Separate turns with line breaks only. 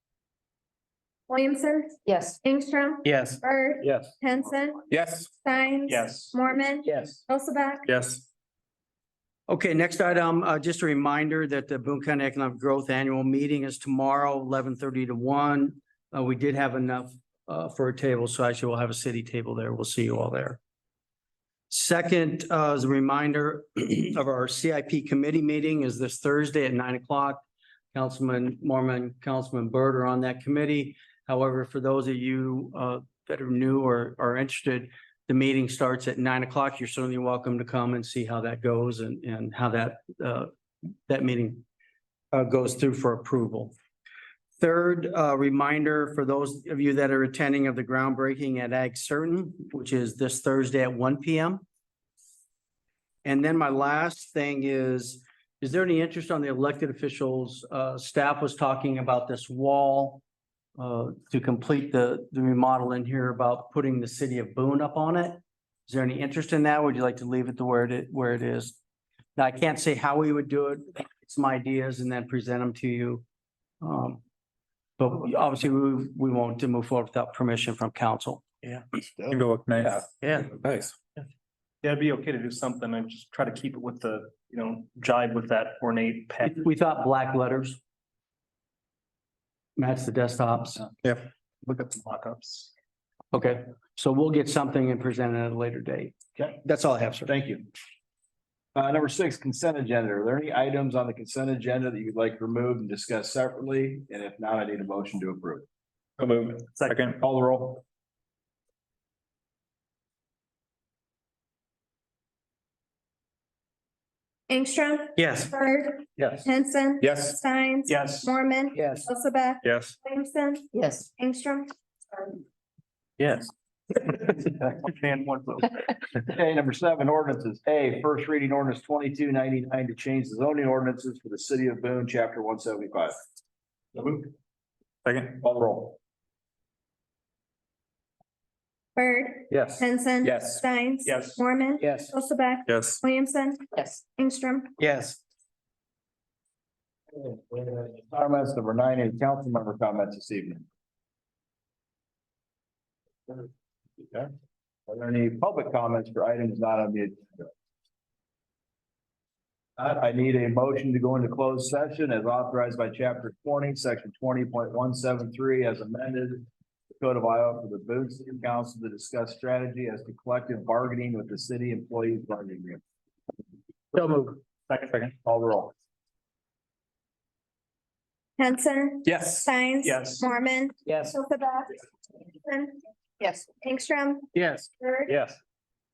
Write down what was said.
Williamson,
Yes.
Ingstrom,
Yes.
Bird,
Yes.
Henson,
Yes.
Stein.
Yes.
Mormon,
Yes.
Elsabak,
Yes.
Okay, next item, uh, just a reminder that the Boone County Economic Growth Annual Meeting is tomorrow, eleven thirty to one. Uh, we did have enough, uh, for a table, so actually we'll have a city table there. We'll see you all there. Second, uh, as a reminder of our CIP committee meeting is this Thursday at nine o'clock. Councilman Mormon, Councilman Byrd are on that committee. However, for those of you, uh, that are new or are interested, the meeting starts at nine o'clock. You're certainly welcome to come and see how that goes and, and how that, uh, that meeting uh, goes through for approval. Third, uh, reminder for those of you that are attending of the groundbreaking at Ag Certain, which is this Thursday at one P M. And then my last thing is, is there any interest on the elected officials? Uh, staff was talking about this wall uh, to complete the, the remodel in here about putting the city of Boone up on it. Is there any interest in that? Would you like to leave it to where it, where it is? Now, I can't say how we would do it, some ideas and then present them to you. Um, but obviously we, we won't to move forward without permission from council.
You go look nice.
Yeah.
Nice.
Yeah, it'd be okay to do something and just try to keep it with the, you know, jive with that ornate pack.
We thought black letters. Match the desktops.
Look at the mockups.
Okay, so we'll get something and present it at a later date.
Okay.
That's all I have, sir.
Thank you. Uh, number six, consent agenda. Are there any items on the consent agenda that you'd like removed and discussed separately? And if not, I need a motion to approve.
So move. Second.
Call the roll.
Ingstrom,
Yes.
Bird,
Yes.
Henson.
Yes.
Stein.
Yes.
Mormon,
Yes.
Elsabak,
Yes.
Williamson,
Yes.
Ingstrom.
Yes. And one vote.
Okay, number seven, ordinances. A, first reading ordinance twenty-two ninety-nine to change the zoning ordinances for the city of Boone, chapter one seventy-five.
Second.
Call the roll.
Bird,
Yes.
Henson.
Yes.
Stein.
Yes.
Mormon,
Yes.
Elsabak,
Yes.
Williamson,
Yes.
Ingstrom.
Yes.
Comments number nine, any council member comments this evening? Okay. Are there any public comments for items not on the agenda? Uh, I need a motion to go into closed session as authorized by chapter twenty, section twenty point one seven three as amended. Code of Iowa for the Boone City Council to discuss strategy as to collective bargaining with the city employees bargaining agreement.
So move. Second. Second.
Call the roll.
Henson.
Yes.
Stein.
Yes.
Mormon,
Yes.
Elsabak. Williamson,
Yes.
Ingstrom,
Yes.
Bird,
Yes.